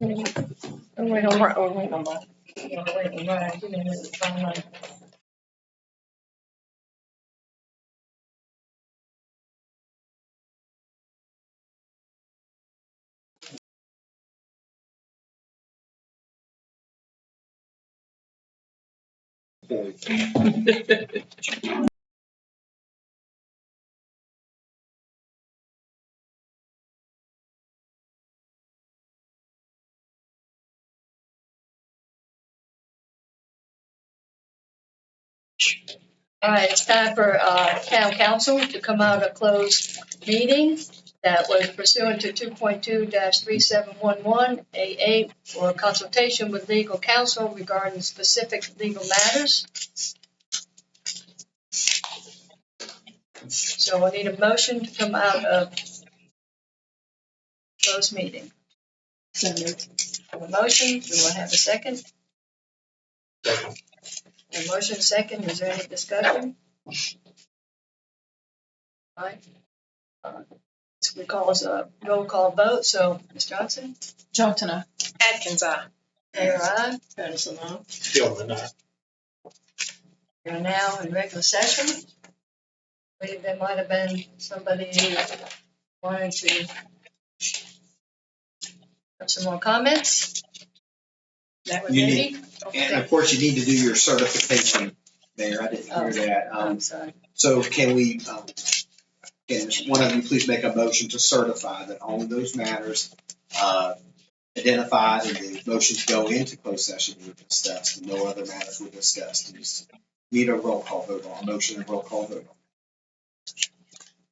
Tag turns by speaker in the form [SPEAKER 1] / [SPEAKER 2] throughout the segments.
[SPEAKER 1] Oh, wait, oh, right, oh, wait, oh, right. Yeah, wait, oh, right, you know, it's fine, right. All right, it's time for uh, town council to come out of closed meeting that was pursuant to 2.2-3711 AA for consultation with legal counsel regarding specific legal matters. So I need a motion to come out of closed meeting. Have a motion, do I have a second? A motion second, is there any discussion? All right. Uh, This we call as a roll call vote, so Ms. Johnson,
[SPEAKER 2] Johnson, aye.
[SPEAKER 3] Atkins, aye.
[SPEAKER 1] Mayor I,
[SPEAKER 2] Patterson, aye.
[SPEAKER 4] Gilman, aye.
[SPEAKER 1] we are now in regular session. Wait, There might have been somebody who wanted to have some more comments. That was
[SPEAKER 4] You
[SPEAKER 1] Debbie.
[SPEAKER 4] And of course, you need to do your certification there. I didn't hear that. Um,
[SPEAKER 1] I'm sorry.
[SPEAKER 4] so can we, um, can one of you please make a motion to certify that all of those matters, uh, identified in the motion to go into closed session were discussed, and no other matters were discussed. You just Need a roll call vote on, motion and roll call vote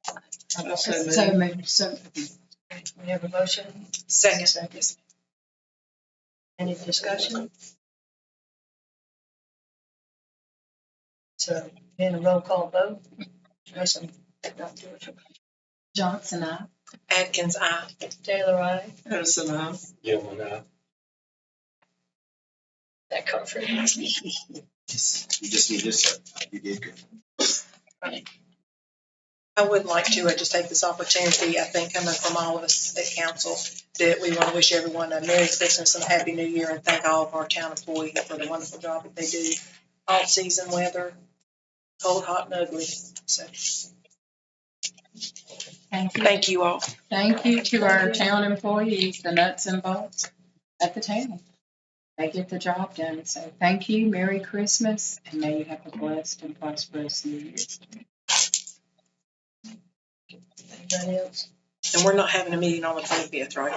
[SPEAKER 4] on.
[SPEAKER 1] I'm
[SPEAKER 2] So
[SPEAKER 1] also
[SPEAKER 2] moved.
[SPEAKER 1] moving.
[SPEAKER 2] So-
[SPEAKER 1] We have a motion.
[SPEAKER 3] Second.
[SPEAKER 1] Any discussion? So, then a roll call vote. Listen, don't do it.
[SPEAKER 2] Johnson, aye.
[SPEAKER 3] Atkins, aye.
[SPEAKER 1] Taylor, I,
[SPEAKER 2] Patterson, aye.
[SPEAKER 4] Gilman, aye.
[SPEAKER 1] that comfort.
[SPEAKER 4] You just need to certify. You did good.
[SPEAKER 3] I would like to uh, just take this opportunity, I think coming from all of us at council, that we want to wish everyone a Merry Christmas and a Happy New Year and thank all of our town employees for the wonderful job that they do. All season weather, cold, hot, and ugly. So
[SPEAKER 2] Thank you.
[SPEAKER 3] thank you all.
[SPEAKER 2] Thank you to our town employees, the nuts and bolts at the town. They get the job done. So thank you. Merry Christmas and may you have a blessed and prosperous New Year.
[SPEAKER 1] Anybody else?
[SPEAKER 3] And we're not having a meeting on the 25th, right?